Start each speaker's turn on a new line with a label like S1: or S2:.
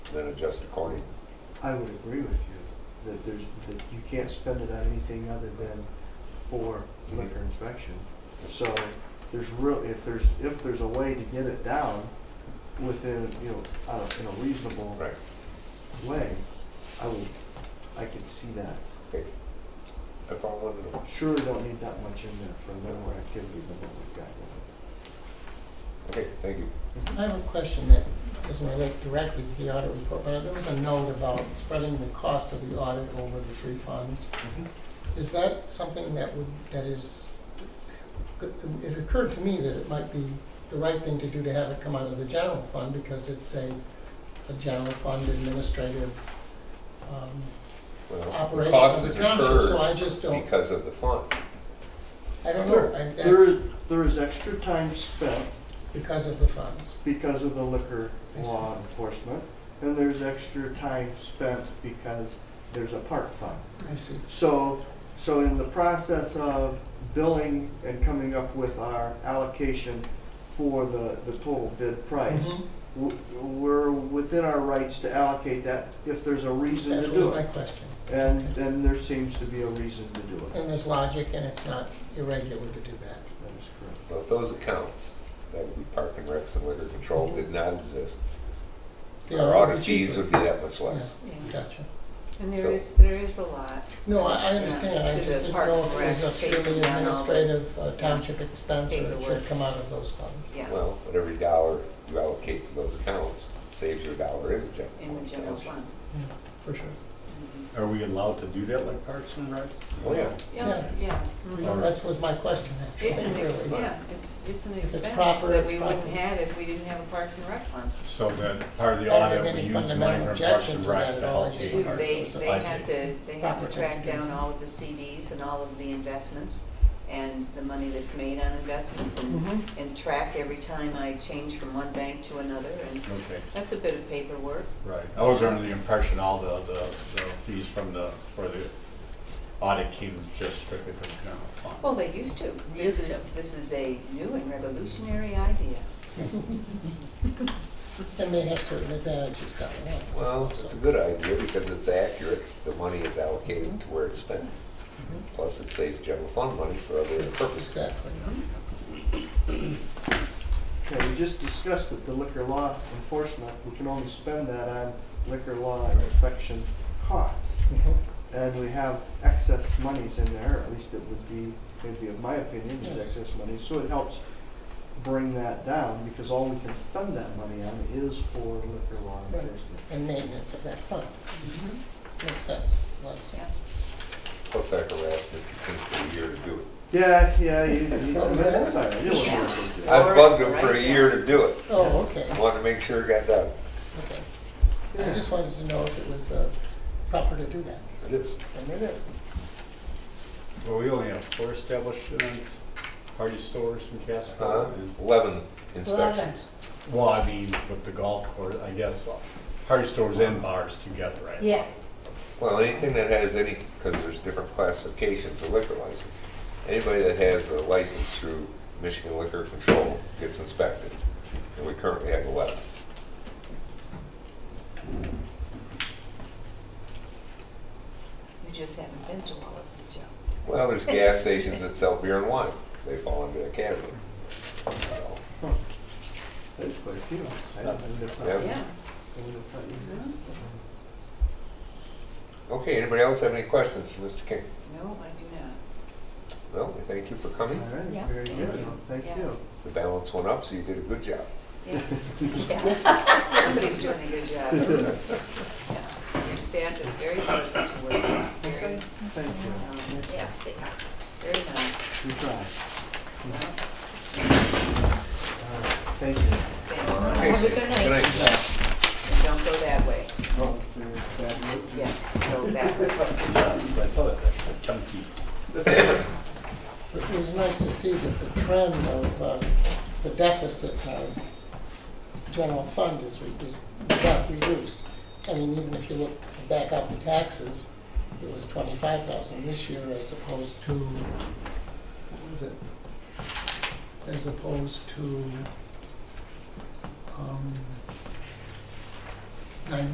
S1: then adjust accordingly.
S2: I would agree with you, that there's, that you can't spend it on anything other than for liquor inspection. So there's real, if there's, if there's a way to get it down within, you know, uh, in a reasonable
S1: Right.
S2: way, I would, I could see that.
S1: That's all I wanted to know.
S2: Surely don't need that much in there for minimal activity than what we've got.
S1: Okay, thank you.
S3: I have a question that doesn't relate directly to the audit report, but there was a note about spreading the cost of the audit over the three funds. Is that something that would, that is, it occurred to me that it might be the right thing to do to have it come out of the general fund because it's a, a general fund administrative, um,
S1: Well, the
S3: operation
S1: cost
S3: of
S1: is
S3: the township, so
S1: incurred
S3: I just don't,
S1: Because of the fund.
S3: I don't know.
S2: There,
S3: I-
S2: there is, there is extra time spent
S3: Because of the funds.
S2: because of the liquor
S3: I see.
S2: law enforcement, and there's extra time spent because there's a park fund.
S3: I see.
S2: So, so in the process of billing and coming up with our allocation for the, the total bid price,
S3: Mhm.
S2: w- we're within our rights to allocate that if there's a reason to
S3: That
S2: do
S3: was my
S2: it.
S3: question.
S2: And, and there seems to be a reason to do it.
S3: And there's logic, and it's not irregular to do that.
S2: That is correct.
S1: Well, if those accounts, that would be park and recs and liquor control, did not exist,
S3: The
S1: our
S3: audit
S1: audit fees
S3: cheaper.
S1: would be that much less.
S3: Yeah, Gotcha.
S4: And
S1: So-
S4: there is, there is a lot.
S3: No, I, I
S4: Yeah,
S3: understand,
S4: to
S3: I
S4: the
S3: just didn't
S4: Parks
S3: know
S4: and
S3: if it was
S4: Rec,
S3: a purely
S4: chasing down all the-
S3: administrative uh, township expense or it should
S4: Paperwork.
S3: come out of those funds.
S4: Yeah,
S1: Well, but every dollar you allocate to those accounts saves your dollar in the general.
S4: in the general
S1: fund.
S4: fund.
S3: Yeah, For sure.
S4: Mhm.
S5: Are we allowed to do that like Parks and Recs?
S1: Oh, yeah.
S4: Yeah, yeah. Mm-hmm.
S5: All right.
S3: That was my question, actually.
S4: It's an, ex-
S3: really.
S4: yeah, it's, it's an
S3: it's
S4: expense
S3: proper,
S4: that
S3: it's
S4: we wouldn't
S3: proper.
S4: have if we didn't have a Parks and Rec fund.
S5: So then part of the
S3: I don't have
S5: audit, we
S3: any
S5: use the
S3: fundamental
S5: money from Parks
S3: objection
S5: and
S3: to that
S5: Recs
S3: at
S5: to
S3: all.
S5: allocate.
S3: Just-
S5: ours.
S4: They, they
S5: I
S4: have
S5: see.
S4: to, they have
S3: Proper.
S4: to track down all of the CDs and all of the investments and the money that's made on investments and,
S3: Mhm.
S4: and track every time I change from one bank to another and
S5: Okay,
S4: that's a bit of paperwork.
S5: right. I was under the impression all the, the, the fees from the, for the audit came just strictly from the general fund.
S4: Well, they used to. This
S3: Used
S4: is, this is a new and revolutionary idea.
S3: And they have certain advantages down the line.
S1: Well, it's a good idea because it's accurate. The money is allocated to where it's spent.
S3: Mm-hmm.
S1: Plus, it saves general fund money for other purposes.
S3: Exactly.
S2: Okay, we just discussed that the liquor law enforcement, we can only spend that on liquor law inspection costs.
S4: Mm-hmm.
S3: Mhm.
S2: And we have excess monies in there, at least it would be, maybe of my opinion, is
S3: Yes.
S2: excess money. So it helps bring that down because all we can spend that money on is for liquor law
S3: Right.
S2: enforcement.
S3: And maintenance of that fund. Mm-hmm. Makes sense, a lot of
S4: Yeah.
S3: sense.
S1: Plus, I harassed Mr. King for a year to do it.
S2: Yeah, yeah, you, you,
S3: What was that?
S2: that's all right. You don't
S4: Yeah.
S2: have to do it.
S1: I bugged him for a
S4: Right.
S1: year to do it.
S3: Oh, okay,
S1: Wanted to make sure it got done.
S3: okay. I just wanted to know if it was uh, proper to do that,
S1: It is.
S3: and it is.
S5: Well, we only have four establishments, party stores in
S1: Uh,
S5: Casco. and-
S1: Eleven inspections.
S5: Well, I mean, with the golf course, I guess, uh, party stores and bars together, right?
S4: Yeah.
S1: Well, anything that has any, because there's different classifications of liquor license. Anybody that has a license through Michigan Liquor Control gets inspected. And we currently have eleven.
S4: You just haven't been to all of them, Joe.
S1: Well, there's gas stations that sell beer and wine. They fall under that category. So,
S2: There's quite a few. I didn't- I wouldn't have thought-
S1: Yeah.
S4: Yeah.
S2: I wouldn't have thought you did.
S4: Mhm.
S1: Okay, anybody else have any questions, Mr. King?
S4: No, I do not.
S1: No, we thank you for coming.
S2: All right,
S4: Yeah.
S2: very
S4: Thank
S2: good.
S4: you.
S2: Well, Thank
S4: Yeah.
S2: you.
S1: The balance went up, so you did a good job.
S4: Yeah. Somebody's doing a good job. Yeah. Your staff is very pleasant to work with, very, um,
S2: Thank you.
S4: yes, they are, very nice.
S2: You tried.
S4: Well,
S2: All right. Thank you.
S4: Thanks.
S1: Okay,
S4: Have a good
S1: good
S4: night.
S1: night.
S4: And Don't go that way.
S2: Oh, it's a bad note.
S4: Yes, go that way.
S5: Yes, I saw that, that chunky.
S3: It was nice to see that the trend of uh, the deficit of general fund is, re- is not reduced. I mean, even if you look back up the taxes, it was twenty-five thousand this year as opposed to, what was it? As opposed to, um, nine